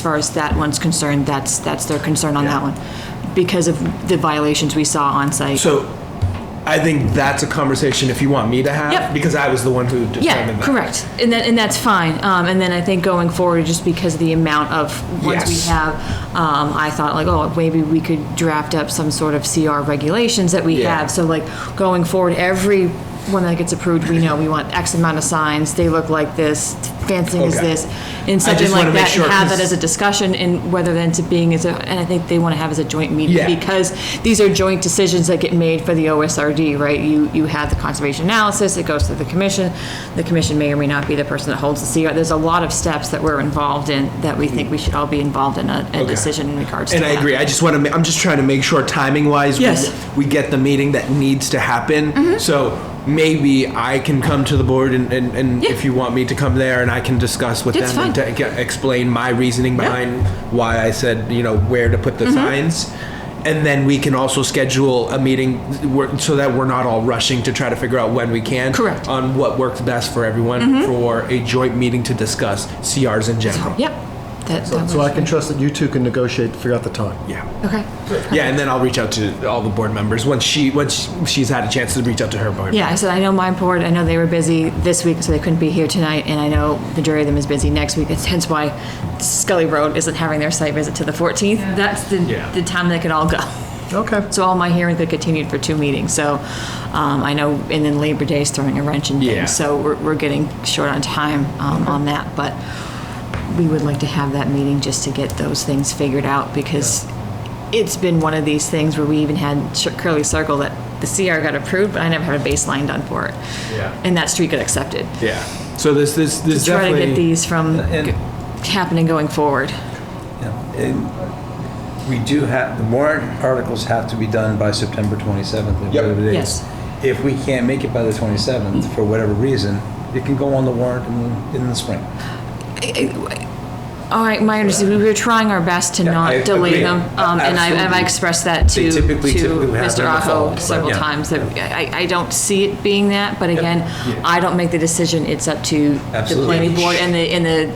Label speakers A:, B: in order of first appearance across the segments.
A: As far as that one's concerned, that's, that's their concern on that one, because of the violations we saw on site.
B: So I think that's a conversation if you want me to have.
A: Yep.
B: Because I was the one who determined
A: Yeah,
B: that.
A: correct, and that, and that's fine, um, and then I think going forward, just because of the amount of ones we
B: Yes.
A: have, um, I thought like, oh, maybe we could draft up some sort of CR regulations that we
B: Yeah.
A: have, so like, going forward, every one that gets approved, we know we want X amount of signs, they look like this, fencing is
B: Okay.
A: this, and something
B: just wanna
A: like
B: make
A: that,
B: sure,
A: and have that
B: 'cause-
A: as a discussion, and whether then to being as a, and I think they wanna have as a joint meeting,
B: Yeah.
A: because because these are joint decisions that get made for the OSRD, right? You, you have the conservation analysis, it goes to the commission. The commission may or may not be the person that holds the CR. There's a lot of steps that we're involved in that we think we should all be involved in a, a
B: Okay.
A: decision in regards to
B: And I
A: that.
B: agree. I just want to. Ma- I'm just trying to make sure timing wise,
A: Yes. Mm-hmm.
B: we, we get the meeting that needs to happen. So maybe I can come to the board, and, and, and
A: Yeah.
B: if you want me to come there, and I can discuss with
A: That's
B: them and
A: fine.
B: to get- explain my reasoning behind why I said you know where to put the
A: Mm-hmm.
B: signs. And then we can also schedule a meeting where- so that we're not all rushing to try to figure out when we can.
A: Correct. Mm-hmm.
B: On what works best for everyone for a joint meeting to discuss CRs in general.
A: Yep. That, that
C: So I
A: works.
C: can trust that you two can negotiate, to figure out the time.
B: Yeah.
A: Okay.
B: Yeah, and then I'll reach out to all the board members once she once she's had a chance to reach out to her board.
A: Yeah, I said, I know my board, I know they were busy this week, so they couldn't be here tonight, and I know majority of them is busy next week. It's hence why Scully Road isn't having their site visit to the 14th. That's the,
B: Yeah.
A: the time they could all go.
C: Okay.
A: So all my hearings have continued for two meetings, so um, I know, and then Labor Day's throwing a wrench in
B: Yeah.
A: things, so we're we're getting short on time um, on that, but we would like to have that meeting just to get those things figured out, because it's been one of these things where we even had Sh- Curly Circle that the CR got approved, but I never had a baseline done for it.
B: Yeah.
A: And that street got accepted.
B: Yeah. So this this this
A: Try to
B: definitely
A: get these from
D: And-
A: g- happening going forward.
D: Yeah, and We do have, the warrant articles have to be done by September 27th. or
B: Yep.
D: whatever it is.
A: Yes.
D: If we can't make it by the 27th, for whatever reason, it can go on the warrant in, in the spring.
A: All right, my understanding, we were trying our best to
D: Yeah, I
A: not delay
D: agree.
A: them, um, and I, and I
D: Absolutely.
A: expressed that to,
D: They
A: to
D: typically- typically have
A: Mr.
D: them in the fall,
A: Aho
D: but
A: several
D: yeah.
A: times, that I, I don't see it being that, but again, I don't make the decision, it's up to the
D: Absolutely.
A: planning board and the, and the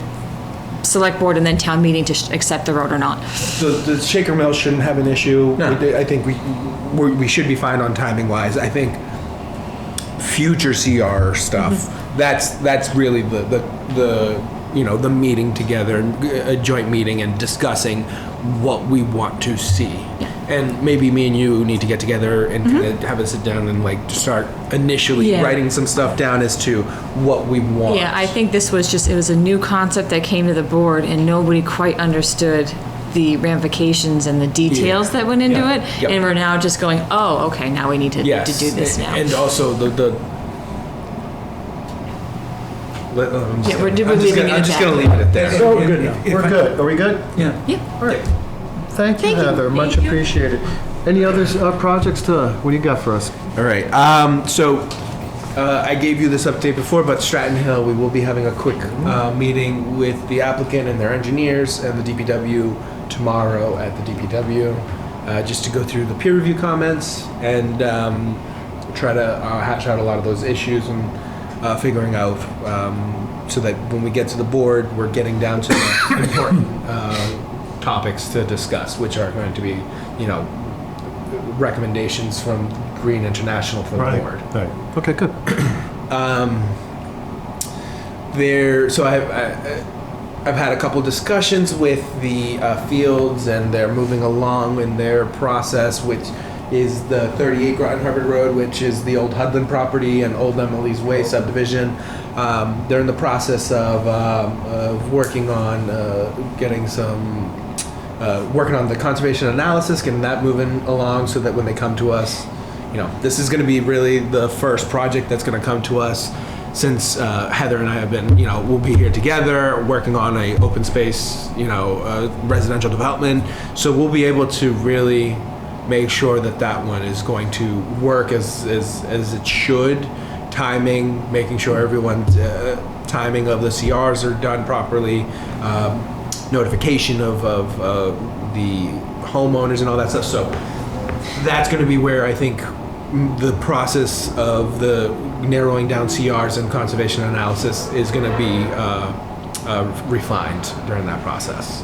A: select board and then town meeting to sh- accept the road or not.
B: so the shaker mill shouldn't have an issue.
D: No.
B: We did- I think we we're, we should be fine on timing wise. I think future CR stuff.
A: Mm-hmm.
B: That's that's really the the the you know the meeting together and g- a joint meeting and discussing what we want to see. And maybe me and you need to get together and kind of have a sit down and like start initially
A: Mm-hmm. Yeah.
B: writing some stuff down as to what we want.
A: Yeah, I think this was just, it was a new concept that came to the board, and nobody quite understood the ramifications and the details that went into
B: Yeah.
A: it,
B: Yep.
A: and we're now just going, oh, okay, now we need to,
B: yes.
A: to do this
B: a-
A: now.
B: And also the the. Let- oh, I'm just
A: Yeah, we're-
B: gonna-
A: we're
B: I'm just
A: leaving
B: gonna-
A: it
B: I'm
A: at
B: just
A: that.
B: gonna leave it at that.
C: So we're good now. We're good. Are we good?
D: Yeah.
A: Yeah.
C: All right. Thank you,
A: Thank you.
C: Heather. Much
A: Thank you.
C: appreciated. Any other uh, projects to, what do you got for us?
B: All right. Um, so uh, I gave you this update before, but Stratton Hill, we will be having a quick uh, meeting with the applicant and their engineers and the DPW tomorrow at the DPW, uh, just to go through the peer review comments and um, try to uh, hash out a lot of those issues and uh, figuring out um, so that when we get to the board, we're getting down to the important uh, topics to discuss, which are going to be, you know, recommendations from Green International for the board.
C: Right. Okay, good.
B: There, so I've, I- I've had a couple discussions with the uh, fields, and they're moving along in their process, which is the 38 Groton Harvard Road, which is the old Hudlin property and old Emily's Way subdivision. Um, they're in the process of, um, of working on uh, getting some uh, working on the conservation analysis, getting that moving along so that when they come to us, you know, this is going to be really the first project that's going to come to us since uh, Heather and I have been, you know, we'll be here together working on a open space, you know, uh, residential development. So we'll be able to really make sure that that one is going to work as as, as it should timing, making sure everyone's uh, timing of the CRs are done properly, um, notification of, of uh, the homeowners and all that stuff. So that's going to be where I think the process of the narrowing down CRs and conservation analysis is going to be uh, uh, refined during that process.